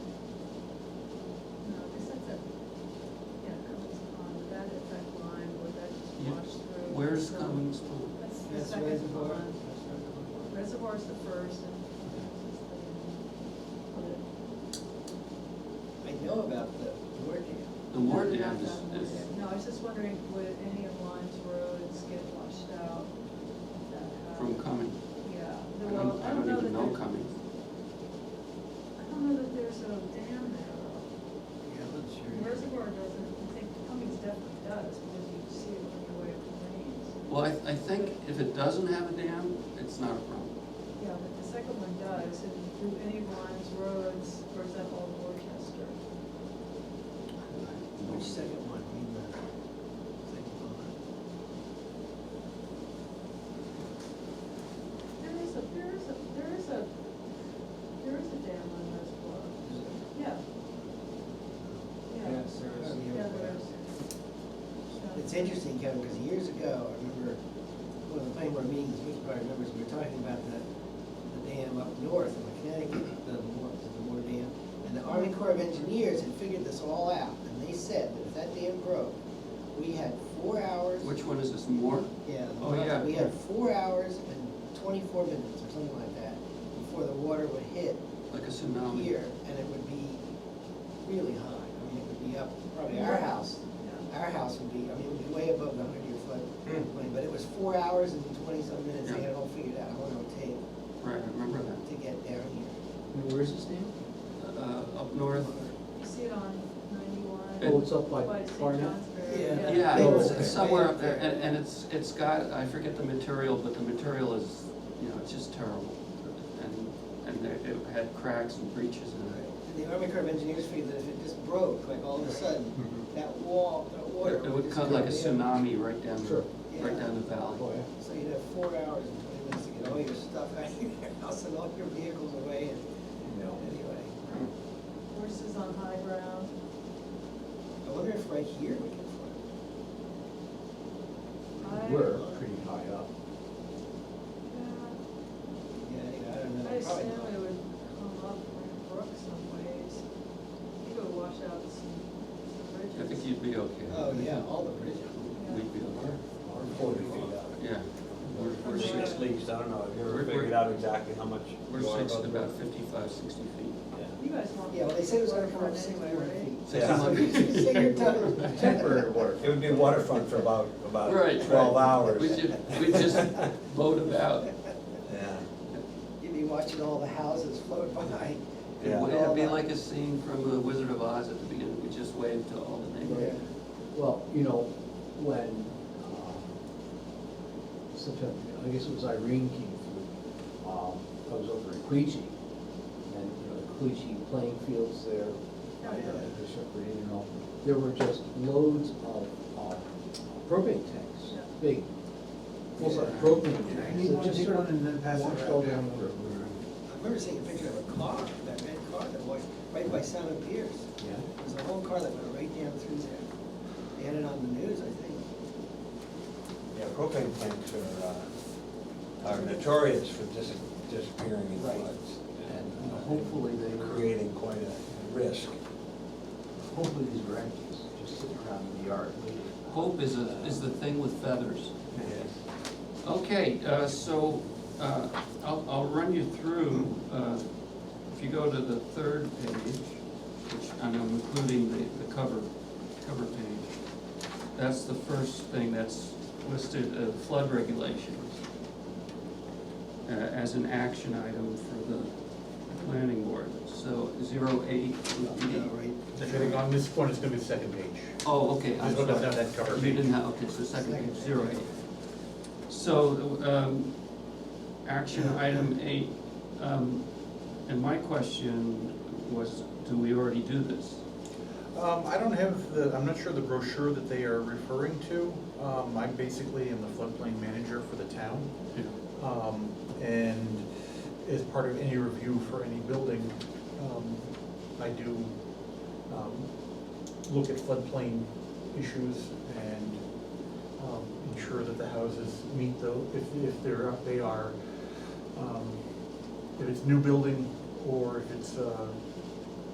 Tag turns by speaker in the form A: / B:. A: first comes to.
B: That's the
C: That's
B: second
C: reservoir.
B: one. Reservoir's the first and.
C: I know about the board dam.
A: The war dam is, is,
B: No, I was just wondering, would any of Lyme's roads get washed out? if that
A: from
B: happened?
A: coming,
B: Yeah,
A: I
B: the- well,
A: don't,
B: I
A: I
B: don't
A: don't
B: know that
A: even know
B: there's, I
A: coming.
B: don't know that there's a dam there. though.
C: Yeah, that's
B: Reservoir doesn't, I think Cummings definitely does, because you see it on your way up the lanes.
A: Well, I, I think if it doesn't have a dam, it's not a problem.
B: Yeah, but the second one does, and do any of Lyme's roads, or is that all Worcester?
C: Which second one, I mean, the second one?
B: There is a, there is a, there is a, there is a dam on Reservoir. Yeah, yeah. Yeah, there is. Yeah.
C: It's interesting, Kevin, because years ago, I remember, one of the planning board meetings, which probably remembers, we were talking about the, the dam up north in Connecticut, the Moore, the Moore Dam. And the Army Corps of Engineers had figured this all out, and they said that if that dam broke, we had four hours.
A: Which one is this, Moore?
C: Yeah.
A: Oh, yeah.
C: We had four hours and twenty-four minutes or something like that before the water would hit
A: Like a tsunami?
C: here, and it would be really high. I mean, it would be up, probably our house,
B: Yeah.
C: our house would be, I mean, it would be way above the hundred year
A: Mm.
C: flood plain, but it was four hours and twenty-some minutes, they had it all figured out, how long it would take
A: Right, I remember that.
C: to get down here.
D: And where's this dam?
A: Uh, up north,
B: You see it on
A: It-
B: ninety-one,
D: Oh, it's up by
B: by St.
D: Barnet?
B: Johnsbury.
C: Yeah.
A: yeah,
D: Oh,
A: it's
D: okay.
A: it's somewhere up there, and, and it's, it's got, I forget the material, but the material is, you know, it's just terrible. And, and there- it had cracks and breaches in it.
C: And the Army Corps of Engineers figured that if it just broke, like all of a sudden, that wall, that water.
A: Mm-hmm. It it would
C: just
A: come like a
C: down.
A: tsunami right down, the
D: Sure.
A: right
C: Yeah.
A: down the valley.
D: Oh, yeah.
C: So you'd have four hours and twenty minutes to get all your stuff out of your house and all your vehicles away and, anyway.
B: Horses on high ground.
C: I wonder if right here we can flood.
B: I-
D: We're pretty high up.
B: Yeah.
C: Yeah, anyway, I don't
B: I
C: know. Probably
B: assume
C: not.
B: it would come up Grand Brook some ways. You could wash out some, some bridges.
A: I think you'd be okay.
C: Oh, yeah, all the bridges.
B: Yeah.
A: We'd be okay,
D: Our
E: Forty feet up.
A: yeah. We're, we're
E: Or six
A: six,
E: leagues, I don't know, have you ever
A: We're-
E: figured out exactly how much?
A: we're
E: you are
A: six to
E: above the-
A: about fifty-five, sixty feet.
E: Yeah.
B: You guys want.
C: Yeah, well, they said it was gonna come
B: waterfront
C: up six
B: anyway,
C: more
B: right?
C: feet.
A: Six
E: Yeah.
A: months.
C: So you're done.
D: Temporary work.
E: It would be waterfront for about, about
A: Right.
E: twelve hours.
A: We just, we just boat about.
E: Yeah,
C: You'd be watching all the houses float by.
A: It would-
E: yeah,
A: It'd be like a scene from The Wizard of Oz at the beginning, we just waved to all the neighbors.
D: Well, you know, when, um, September, I guess it was Irene came through, um, I was over at Queechee. And, you know, the Queechee playing fields there,
B: Yeah,
D: you know,
B: yeah.
D: the Shepherd Inn and all, there were just loads of, um, propane tanks,
B: Yeah.
D: big, full-size propane tanks. that just sort of washed all down the river.
C: I remember seeing a picture of a car, that red car that was right by Simon Pierce.
D: Yeah.
C: There was a whole car that went right down through there. They had it on the news, I think.
E: yeah, propane tanks are, uh, are notorious for dis- disappearing in
C: Right.
E: floods. and, uh,
D: Hopefully they were-
E: Creating quite a risk.
D: Hopefully these wreckies just sitting around in the yard waiting.
A: Hope is a, is the thing with feathers. Okay, uh, so, uh, I'll, I'll run you through, uh, if you go to the third page, which I'm including the, the cover, cover page, that's the first thing that's listed, uh, flood regulations, uh, as an action item for the planning board, so zero eight would be.
C: Yeah, right.
F: I think on this one, it's gonna be the second page.
A: Oh, okay, I'm
F: Just look at
A: sorry.
F: that cover
A: You
F: page.
A: didn't have, okay, so second page, zero eight. So, um, action item eight, um, and my question was, do we already do this?
F: Um, I don't have the, I'm not sure the brochure that they are referring to. Um, I'm basically am the floodplain manager for the town.
A: Yeah.
F: Um, and as part of any review for any building, um, I do, um, look at floodplain issues and, um, ensure that the houses meet the, if, if they're, they are, um, if it's new building or if it's, uh,